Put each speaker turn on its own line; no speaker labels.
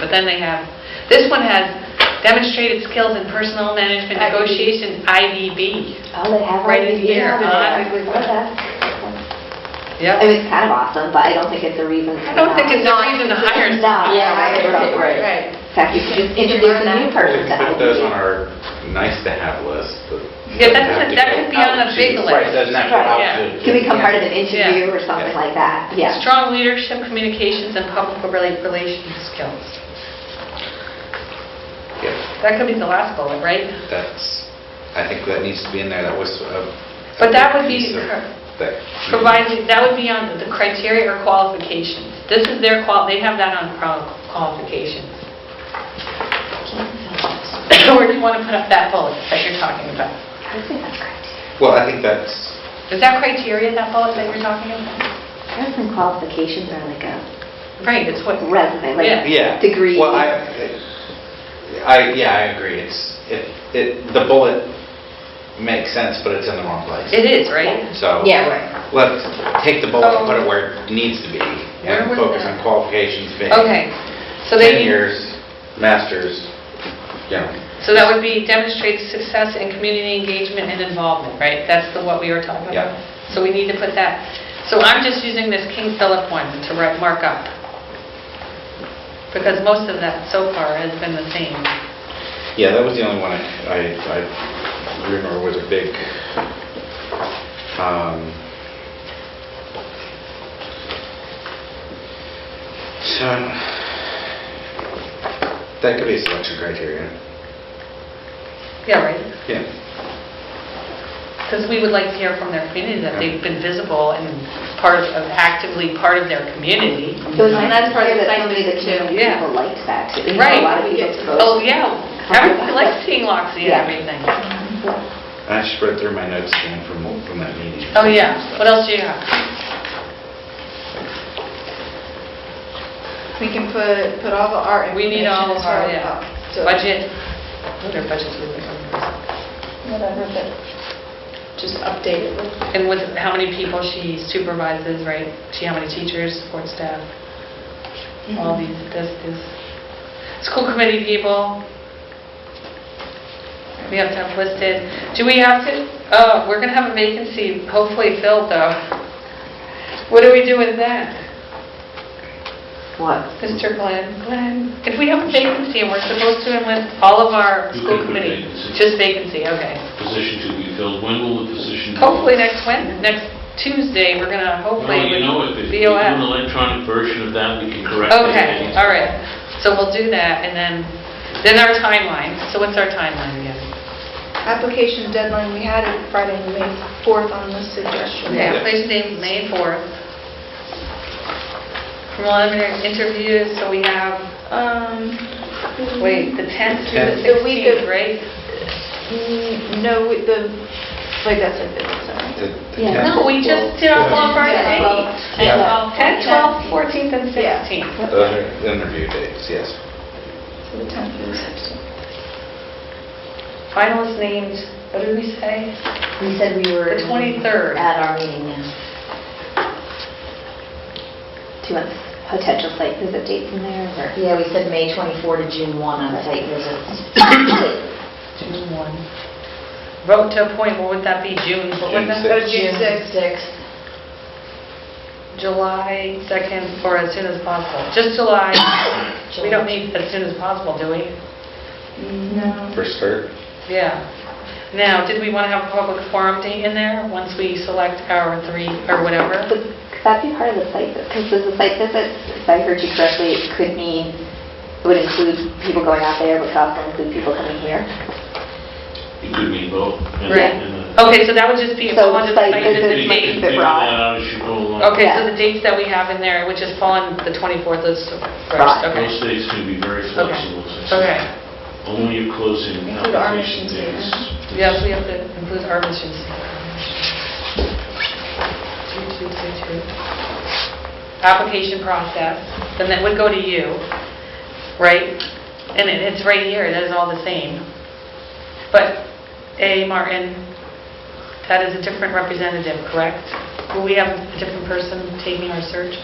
but then they have, this one has demonstrated skills in personal management
IDB.
negotiation, IDB.
Oh, they have
Right in
one
here, Uh,
Yeah, they
huh?
have one. Okay. I
Yep.
mean, it's kind of awesome, but I don't think it's a reason.
I don't think it's a reason to hire
No,
someone.
yeah, I agree with
Right.
you.
Right.
In fact, you should just
You should
introduce
learn
a new
that.
Well, we
person.
can put those on our nice-to-have list, but...
Yeah, that's a-
doesn't have to
that
go
could be on
out
the
to-
big
Right,
list.
doesn't have to
Right,
yeah.
have to.
Can become part of an
Yeah.
interview or something
Yeah.
like that, yeah.
Strong leadership, communications, and public rela- relations skills.
Yeah,
That could be the last bullet, right?
That's, I think that needs to be in there, that was a... a
But that
big
would be
piece of
cur-
that-
Provided, that would be on the criteria or qualifications. This is their qual, they have that on qual- qualifications. Or do you want to put up that bullet that you're talking about?
I think that's great.
Well, I think that's,
Is that criteria, that bullet that you're talking about?
Parents and qualifications are like a
Right, it's what,
resume,
Yeah.
like
yeah.
degree.
Well, I, I, yeah, I agree, it's, it, it, the bullet makes sense, but it's in the wrong place.
it is, right?
So...
Yeah, right.
Let's take the bullet and put it
Oh.
where it needs to be,
Where
and
was
focus
that?
on qualifications, being
Okay, so they
10
need...
years, masters, you know.
So that would be demonstrate success in community engagement and involvement, right? That's the, what we were talking about?
Yeah.
So we need to put that, so I'm just using this King Philip one to re- mark up, because most of that so far has been the same.
Yeah, that was the only one I, I- I remember was a big, um, so, that could be a selection criteria.
Yeah, right?
Yeah.
Because we would like to hear from their community that they've been visible and part of, actively part of their community.
It was
And
nice
that's
to
part
hear
of the
that
site
some of the
visit, too.
community
Yeah.
people liked that too. You know,
Right.
A lot of people
Oh,
spoke.
yeah, everybody likes seeing Loxie and everything.
I just read through my notes again from, from that meeting.
Oh, yeah, what else do you have?
We can put, put all the art
We need
information
all
as
of
far
our,
as
yeah,
the-
budget, what are budgets we were talking about?
Whatever, but just update it with
And with how many people she supervises, right? She, how many teachers, support staff, all these, this, this. School committee people. We have to have listed. Do we have to, oh, we're gonna have a vacancy, hopefully filled though. What do we do with that?
What?
Mr. Glenn, Glenn, if we have a vacancy and we're supposed to enlist all of our
You
school
could put
committee,
vacancy.
just vacancy, okay.
position to be filled, when will the position? be filled?
Hopefully next Wednesday, next Tuesday, we're gonna hopefully.
Well, you know, if if we do an
BOF.
electronic version of that, we can correct it.
Okay, all right, so we'll do that, and then, then our timeline, so what's our timeline again?
Application deadline, we had it Friday, May 4th on the suggestion.
Okay, application date May 4th. Preliminary interviews, so we have,
Um,
wait, the 10th through the
The week of-
16th, right?
mm, No, we- the, wait, that's a bit, sorry.
The- the
Yeah.
tenth-
No, we just did all of our
Yeah.
dates.
Yeah.
10, 12, 14th, and
Yeah.
16th.
Those are interview dates, yes.
So the 10th through the 16th.
Finalists named, what did we say?
We said we were.
The 23rd.
At our meeting, yeah. Do you want potential site visit dates in there or?
Yeah, we said May 24 to June 1 on site visits.
June 1. Vote to appoint, what would that be, June? What would
June
that-
sixth.
June sixth.
6th.
July 2nd or as soon as possible? Just July? We don't need as soon as possible, do we?
No.
For start?
Yeah. Now, did we want to have a public forum date in there once we select our three or whatever?
Would that be part of the site, because the site visit, if I heard you correctly, it could mean, it would include people going out there, but could also include people coming here?
It could be both. and-
Right.
and, uh,
Okay, so that would just be
So
upon the
site
site
visit
visit
we
might be
can
date.
the
figure
broad.
that out as you go along.
Okay, so
Yeah.
the dates that we have in there, which is fall on the 24th is first,
Right.
Those
okay?
dates can be very flexible. as I
Okay.
said. Only your closing
Include our
application
missions
dates.
Yes, we have to include our missions. Two, two, two, two. Application process, then that would go to you, right? And it- it's right here, that is all the same. But A. Martin, that is a different representative, correct? Will we have a different person taking our search?